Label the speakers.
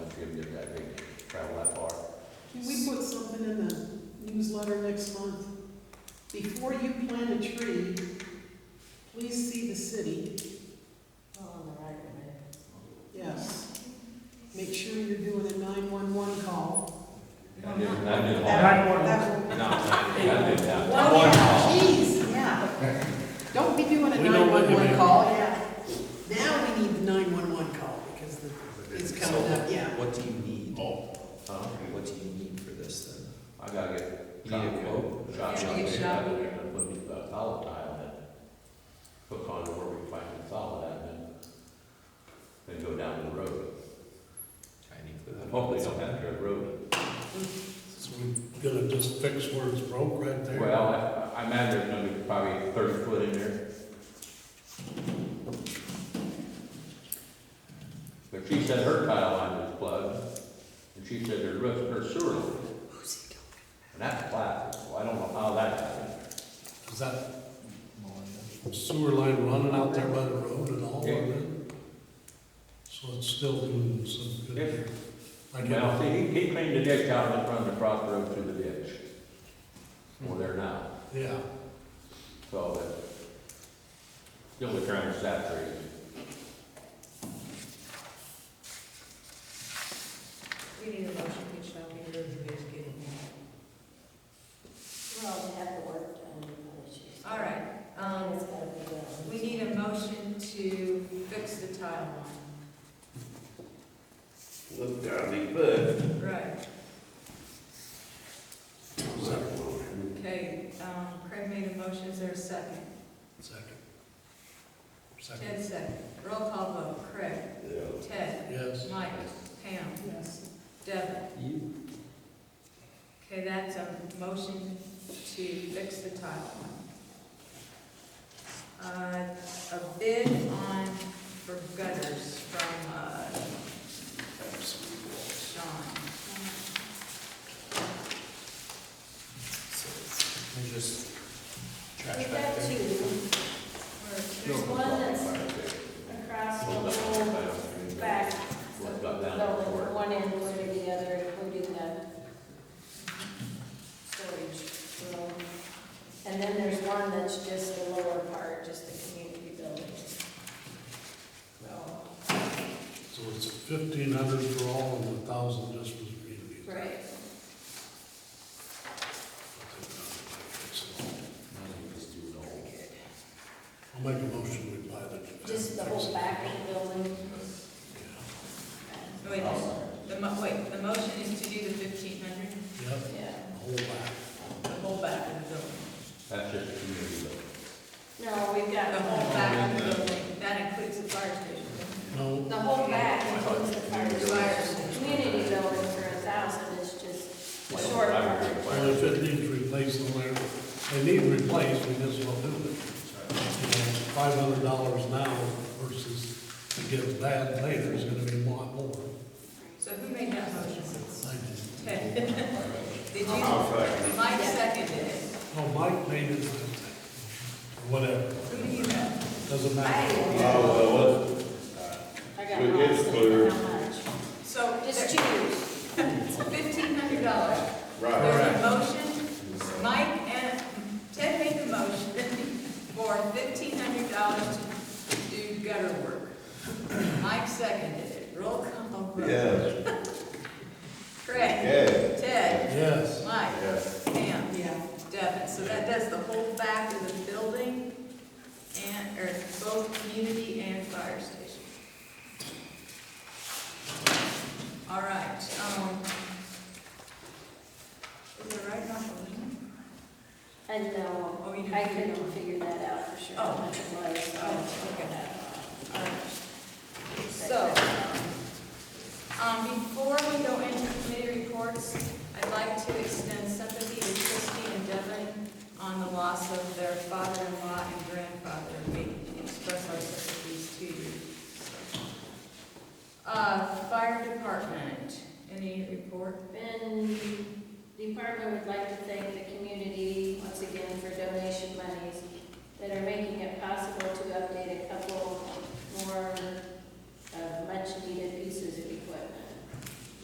Speaker 1: newsletter next month. Before you plant a tree, please see the city.
Speaker 2: on the right of it.
Speaker 1: Yes. Make sure you're doing a 911 call.
Speaker 3: I did, I did all.
Speaker 4: Nine one one.
Speaker 1: That-
Speaker 3: No, I did, I did that.
Speaker 2: Well, yeah.
Speaker 1: Jeez, yeah. Don't be doing a
Speaker 5: We know what you
Speaker 1: 911
Speaker 5: mean.
Speaker 1: call, yeah. Now we need the 911 call because the- it's coming up, yeah.
Speaker 6: What do you need?
Speaker 5: Oh.
Speaker 6: Huh? What do you need for this then?
Speaker 3: I gotta get.
Speaker 6: You need a quote?
Speaker 3: Drop
Speaker 2: Yeah,
Speaker 3: shot.
Speaker 2: you get shot.
Speaker 3: Put me a solid tile in, hook on where we find the solid at, and then, then go down the road.
Speaker 6: Tiny clue.
Speaker 3: Hopefully they don't have to have road.
Speaker 5: So we gotta just fix where it's broke right there.
Speaker 3: Well, I- I imagine there's gonna be probably thirty foot in there. But she said her tile line was plugged, and she said her roof, her sewer line,
Speaker 1: Who's he talking?
Speaker 3: and that's flat, so I don't know how that happened.
Speaker 5: Is that sewer line running out there by the road and all of
Speaker 3: Yeah.
Speaker 5: it? So it's still doing some good. I get
Speaker 3: Well,
Speaker 5: it.
Speaker 3: see, he, he cleaned the ditch out and it runs across the road through the ditch. Well, there now,
Speaker 5: Yeah,
Speaker 3: so that, still the ground is saturated.
Speaker 2: We need a motion, we shall be here, we just get it
Speaker 7: Well, we have the work done, no issues.
Speaker 2: All right,
Speaker 7: And
Speaker 2: um,
Speaker 7: it's gotta be done.
Speaker 2: we need a motion to fix the tile line.
Speaker 8: Look, darling, but.
Speaker 2: Right,
Speaker 5: is that
Speaker 2: okay, um, Craig made a motion, is there a second?
Speaker 5: second? Second,
Speaker 2: Ted second, roll call vote, Craig, Ted,
Speaker 5: yes.
Speaker 2: Mike, Pam,
Speaker 1: Yes.
Speaker 2: Devin.
Speaker 6: You,
Speaker 2: Okay, that's a motion to fix the tile. Uh, a bid on, for gutters from, uh, Sean.
Speaker 6: you just
Speaker 7: We
Speaker 6: trash back
Speaker 7: have
Speaker 6: there.
Speaker 7: two, there's one that's across the whole back,
Speaker 3: What got down
Speaker 7: so
Speaker 3: before.
Speaker 7: one end would be the other, including the storage room. And then there's one that's just the lower part, just the community building. So,
Speaker 5: So it's fifteen hundred for all and a thousand just for the community.
Speaker 7: right,
Speaker 5: I'll make a motion, we buy the.
Speaker 7: just the whole back of the building.
Speaker 5: Yeah.
Speaker 2: Wait, the, mo- wait, the motion is to do the fifteen hundred,
Speaker 5: Yep,
Speaker 7: Yeah.
Speaker 5: the whole back.
Speaker 2: the whole back of the building.
Speaker 3: That's just community building.
Speaker 7: No, we've got
Speaker 2: The whole back of the building, that includes the fire station.
Speaker 5: No,
Speaker 7: The whole back includes the fire department. Community building for a thousand is just the short part.
Speaker 5: well, if it needs replacing there, they need replaced, we just won't do it. Five hundred dollars now versus to give that later is gonna be a lot more.
Speaker 2: So who made that motion?
Speaker 5: I just-
Speaker 2: Ted. uh, Did you,
Speaker 8: I'll second
Speaker 2: Mike uh, seconded it,
Speaker 5: Oh, Mike made it, whatever,
Speaker 2: who do you know?
Speaker 5: doesn't
Speaker 8: it.
Speaker 5: matter.
Speaker 8: Oh, well,
Speaker 7: I got
Speaker 8: It is
Speaker 7: lost in
Speaker 8: clear.
Speaker 7: how much.
Speaker 2: So,
Speaker 7: Just choose.
Speaker 2: fifteen hundred dollars.
Speaker 8: that's right.
Speaker 2: There's a motion, Mike and, Ted made the motion for fifteen hundred dollars to do gutter work. Mike seconded it, roll call vote.
Speaker 8: Yes,
Speaker 2: Craig,
Speaker 8: yes,
Speaker 2: Ted,
Speaker 5: Yes,
Speaker 2: Mike,
Speaker 8: yes.
Speaker 2: Pam,
Speaker 1: Yeah.
Speaker 2: Devin, so that does the whole back of the building and, or both community and fire station. All right, um, is it right now?
Speaker 7: And no,
Speaker 2: Oh, you
Speaker 7: I
Speaker 2: didn't figure it
Speaker 7: couldn't figure that out for sure.
Speaker 2: Oh.
Speaker 7: how much it was, so
Speaker 2: Oh,
Speaker 7: I figured
Speaker 2: okay.
Speaker 7: that out.
Speaker 2: All right. So,
Speaker 7: But,
Speaker 2: um, before we go into committee reports, I'd like to extend sympathy to Christie and Devin on the loss of their father-in-law and grandfather. We express our sympathies to you. Uh, fire department, any report?
Speaker 7: And the department would like to thank the community once again for donation monies that are making it possible to update a couple more uh, much-needed